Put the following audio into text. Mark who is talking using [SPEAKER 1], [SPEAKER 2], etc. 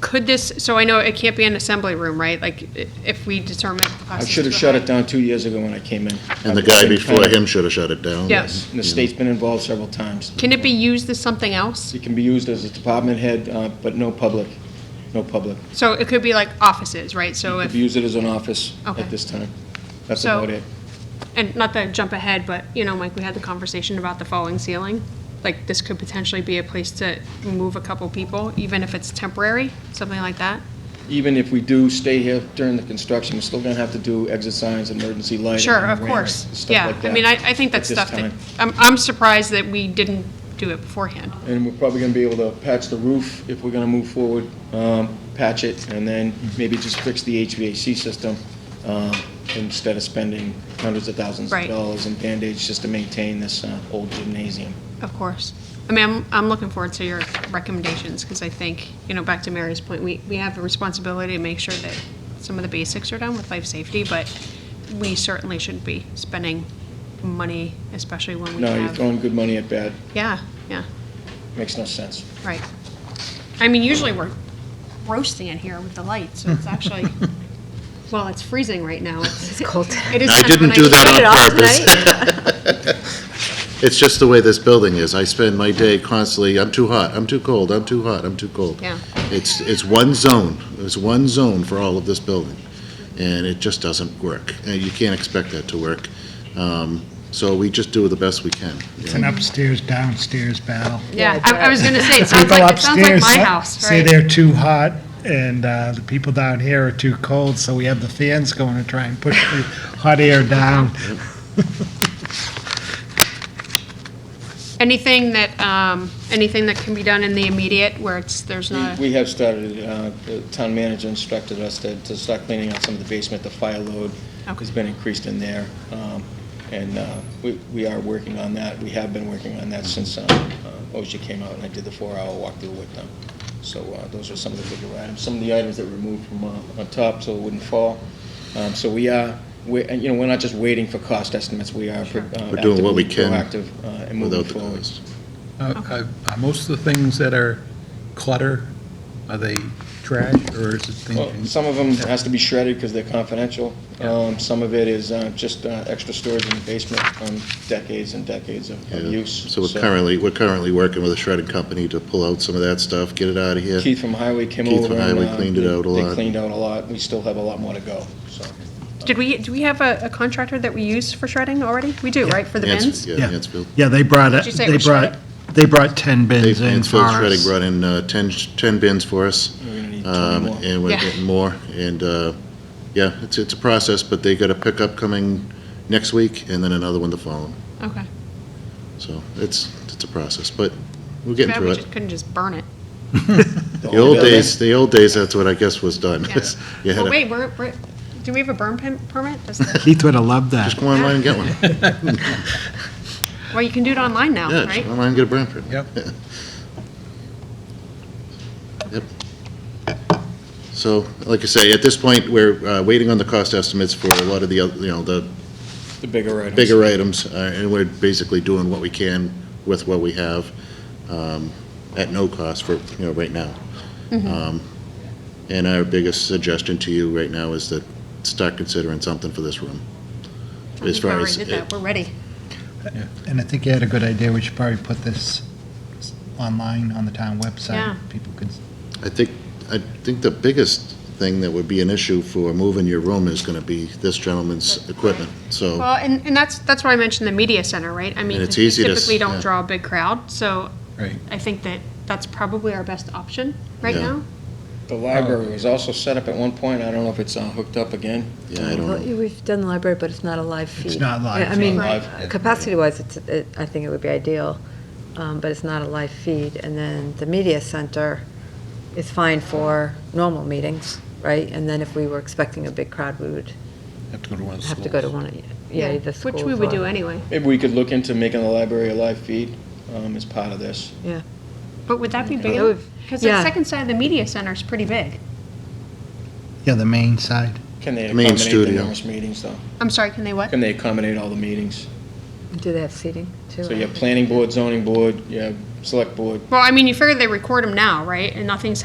[SPEAKER 1] could this, so I know it can't be an assembly room, right? Like, i- if we determine. the
[SPEAKER 2] I
[SPEAKER 1] process
[SPEAKER 2] should have
[SPEAKER 1] is
[SPEAKER 2] shut it
[SPEAKER 1] behind-
[SPEAKER 2] down two years ago when I came in.
[SPEAKER 3] And the guy before him should have shut it down.
[SPEAKER 1] Yes.
[SPEAKER 2] And the state's been involved several times.
[SPEAKER 1] Can it be used as something else?
[SPEAKER 2] It can be used as a department head, uh, but no public, no public.
[SPEAKER 1] So it could be like offices, right? So
[SPEAKER 2] If
[SPEAKER 1] if,
[SPEAKER 2] you use it as an office
[SPEAKER 1] Okay.
[SPEAKER 2] at this time, that's
[SPEAKER 1] So-
[SPEAKER 2] about it.
[SPEAKER 1] and not to jump ahead, but, you know, Mike, we had the conversation about the falling ceiling. Like, this could potentially be a place to move a couple people, even if it's temporary, something like that.
[SPEAKER 2] Even if we do stay here during the construction, we're still gonna have to do exit signs, emergency lighting.
[SPEAKER 1] Sure, of
[SPEAKER 2] ramps,
[SPEAKER 1] course.
[SPEAKER 2] stuff
[SPEAKER 1] Yeah,
[SPEAKER 2] like
[SPEAKER 1] I
[SPEAKER 2] that
[SPEAKER 1] mean, I, I think
[SPEAKER 2] at
[SPEAKER 1] that's
[SPEAKER 2] this
[SPEAKER 1] stuff that,
[SPEAKER 2] time.
[SPEAKER 1] I'm, I'm surprised that we didn't do it beforehand.
[SPEAKER 2] And we're probably gonna be able to patch the roof if we're gonna move forward, um, patch it, and then maybe just fix the HVAC system, um, instead of spending hundreds of thousands of
[SPEAKER 1] Right.
[SPEAKER 2] dollars in Band-Aids just to maintain this, uh, old gymnasium.
[SPEAKER 1] Of course. I mean, I'm, I'm looking forward to your recommendations, because I think, you know, back to Mary's point, we, we have a responsibility to make sure that some of the basics are done with life safety, but we certainly shouldn't be spending money, especially when we
[SPEAKER 2] No, you're
[SPEAKER 1] have.
[SPEAKER 2] throwing good money at bad,
[SPEAKER 1] Yeah, yeah,
[SPEAKER 2] makes no sense.
[SPEAKER 1] right. I mean, usually we're roasting in here with the lights, so it's actually, well, it's freezing right now. It's cold. It is.
[SPEAKER 3] I
[SPEAKER 1] kind of a
[SPEAKER 3] didn't do
[SPEAKER 1] nice-
[SPEAKER 3] that
[SPEAKER 4] Shut it
[SPEAKER 3] on
[SPEAKER 4] off
[SPEAKER 3] purpose. It's just the way this building is. I spend my day constantly, I'm too hot, I'm too cold, I'm too hot, I'm too cold.
[SPEAKER 1] Yeah.
[SPEAKER 3] It's, it's one zone. It's one zone for all of this building. And it just doesn't work. And you can't expect that to work. Um, So we just do the best we can.
[SPEAKER 5] It's an upstairs, downstairs battle.
[SPEAKER 1] Yeah, I, I was gonna say, it sounds
[SPEAKER 5] People
[SPEAKER 1] like, it sounds like
[SPEAKER 5] upstairs
[SPEAKER 1] my house,
[SPEAKER 5] Say
[SPEAKER 1] right?
[SPEAKER 5] they're too hot, and uh, the people down here are too cold, so we have the fans going to try and push the hot air down.
[SPEAKER 1] Anything that, um, anything that can be done in the immediate where it's, there's
[SPEAKER 2] We-
[SPEAKER 1] not,
[SPEAKER 2] We have started, uh, the town manager instructed us to to start cleaning out some of the basement. The fire load has
[SPEAKER 1] Okay.
[SPEAKER 2] been increased in there. um, And uh, we we are working on that. We have been working on that since uh, uh, OSHA came out and I did the four-hour walkthrough with them. So uh, those are some of the bigger items, some of the items that were moved from uh, on top so it wouldn't fall. Um, So we are, we- and, you know, we're not just waiting for cost estimates. We are pro- uh,
[SPEAKER 3] We're doing what we
[SPEAKER 2] actively
[SPEAKER 3] can
[SPEAKER 2] proactive uh, and moving
[SPEAKER 3] Without the
[SPEAKER 2] forward.
[SPEAKER 3] cost.
[SPEAKER 6] Uh, Are most of the things that are clutter, are they trash, or is it
[SPEAKER 3] Mm-hmm.
[SPEAKER 2] Well,
[SPEAKER 6] things?
[SPEAKER 2] Some of them has to be shredded because they're confidential. Um, Some of it is uh, just uh, extra storage in the basement from decades and decades of of
[SPEAKER 3] Yeah.
[SPEAKER 2] use.
[SPEAKER 3] So we're currently, we're currently working with a shredding company to pull out some of that stuff, get it out of here.
[SPEAKER 2] Keith from Highway came over.
[SPEAKER 3] Keith from
[SPEAKER 2] and,
[SPEAKER 3] Highway
[SPEAKER 2] uh,
[SPEAKER 3] cleaned it
[SPEAKER 2] they-
[SPEAKER 3] out a
[SPEAKER 2] They
[SPEAKER 3] lot.
[SPEAKER 2] cleaned out a lot. We still have a lot more to go, so.
[SPEAKER 1] did we, do we have a a contractor that we use for shredding already? We do, right, for the
[SPEAKER 3] Ans-
[SPEAKER 1] bins?
[SPEAKER 3] Yeah,
[SPEAKER 5] Yeah.
[SPEAKER 3] Mansfield.
[SPEAKER 5] Yeah, they brought,
[SPEAKER 1] Did you say it was shredded?
[SPEAKER 5] they brought 10
[SPEAKER 3] Dave Mansfield Shredding brought in uh, 10, sh- 10 bins for us.
[SPEAKER 2] We're gonna need 20
[SPEAKER 3] um,
[SPEAKER 2] more.
[SPEAKER 3] And we're
[SPEAKER 1] Yeah.
[SPEAKER 3] getting more, and, uh, yeah, it's, it's a process, but they got a pickup coming next week, and then another one to follow.
[SPEAKER 1] Okay.
[SPEAKER 3] So it's, it's a process, but we're getting
[SPEAKER 1] Bad
[SPEAKER 3] through
[SPEAKER 1] we
[SPEAKER 3] it.
[SPEAKER 1] just couldn't just burn it.
[SPEAKER 3] The old days, the old days, that's what I guess was done.
[SPEAKER 1] Yeah.
[SPEAKER 3] You
[SPEAKER 1] Well,
[SPEAKER 3] had to
[SPEAKER 1] wait, we're, we're, do we have a burn pin- permit? Does the-
[SPEAKER 5] Keith would have loved that.
[SPEAKER 3] just go online and get one. Yeah,
[SPEAKER 1] Well, you can do it online now,
[SPEAKER 3] just
[SPEAKER 1] right?
[SPEAKER 3] go online and get a brand print.
[SPEAKER 6] Yep.
[SPEAKER 3] Yep. So, like I say, at this point, we're uh, waiting on the cost estimates for a lot of the, oth- you know, the
[SPEAKER 2] The bigger items.
[SPEAKER 3] bigger items, uh, and we're basically doing what we can with what we have um, at no cost for, you know, right now.
[SPEAKER 1] Mm-hmm.
[SPEAKER 3] Um, And our biggest suggestion to you right now is that start considering something for this room.
[SPEAKER 1] I
[SPEAKER 3] As
[SPEAKER 1] think we
[SPEAKER 3] far
[SPEAKER 1] already
[SPEAKER 3] as,
[SPEAKER 1] did
[SPEAKER 3] it-
[SPEAKER 1] that. We're ready.
[SPEAKER 5] And I think you had a good idea, we should probably put this online on the town website.
[SPEAKER 1] Yeah.
[SPEAKER 5] People could,
[SPEAKER 3] I think, I think the biggest thing that would be an issue for moving your room is going to be this gentleman's equipment, so.
[SPEAKER 1] Well, and, and that's, that's why I mentioned the media center, right? I mean,
[SPEAKER 3] Oh. it's
[SPEAKER 1] we
[SPEAKER 3] easy to s-
[SPEAKER 1] typically don't
[SPEAKER 3] yeah.
[SPEAKER 1] draw a big crowd, so
[SPEAKER 6] Right.
[SPEAKER 1] I think that that's probably our best option right
[SPEAKER 3] Yeah.
[SPEAKER 1] now.
[SPEAKER 2] The library was also set up at one point. I don't know if it's uh, hooked up again.
[SPEAKER 3] Yeah, I don't
[SPEAKER 4] Well,
[SPEAKER 3] know.
[SPEAKER 4] yeah, We've done the library, but it's not a live feed.
[SPEAKER 5] It's not live,
[SPEAKER 4] Yeah, I
[SPEAKER 5] it's
[SPEAKER 4] mean,
[SPEAKER 2] not live.
[SPEAKER 4] capacity-wise, it's, it- I think it would be ideal, um, but it's not a live feed. And then the media center is fine for normal meetings, right? And then if we were expecting a big crowd, we would
[SPEAKER 6] Have to go to one of the
[SPEAKER 4] have to go to
[SPEAKER 6] schools.
[SPEAKER 4] one of, yeah, either schools.
[SPEAKER 1] Which we would
[SPEAKER 4] or-
[SPEAKER 1] do anyway.
[SPEAKER 2] Maybe we could look into making the library a live feed um, as part of this.
[SPEAKER 4] Yeah.
[SPEAKER 1] But would that be big
[SPEAKER 4] That
[SPEAKER 1] enough?
[SPEAKER 4] would-
[SPEAKER 1] Because the
[SPEAKER 4] yeah.
[SPEAKER 1] second side of the media center is pretty big.
[SPEAKER 5] yeah, the main side.
[SPEAKER 2] Can they
[SPEAKER 3] Main
[SPEAKER 2] accommodate the
[SPEAKER 3] studio.
[SPEAKER 2] numerous meetings, though?
[SPEAKER 1] I'm sorry, can they what?
[SPEAKER 2] Can they accommodate all the meetings?
[SPEAKER 4] Do they have seating, too?
[SPEAKER 2] So you have planning board, zoning board, you have select board,
[SPEAKER 1] Well, I mean, you figure they record them now, right? And nothing's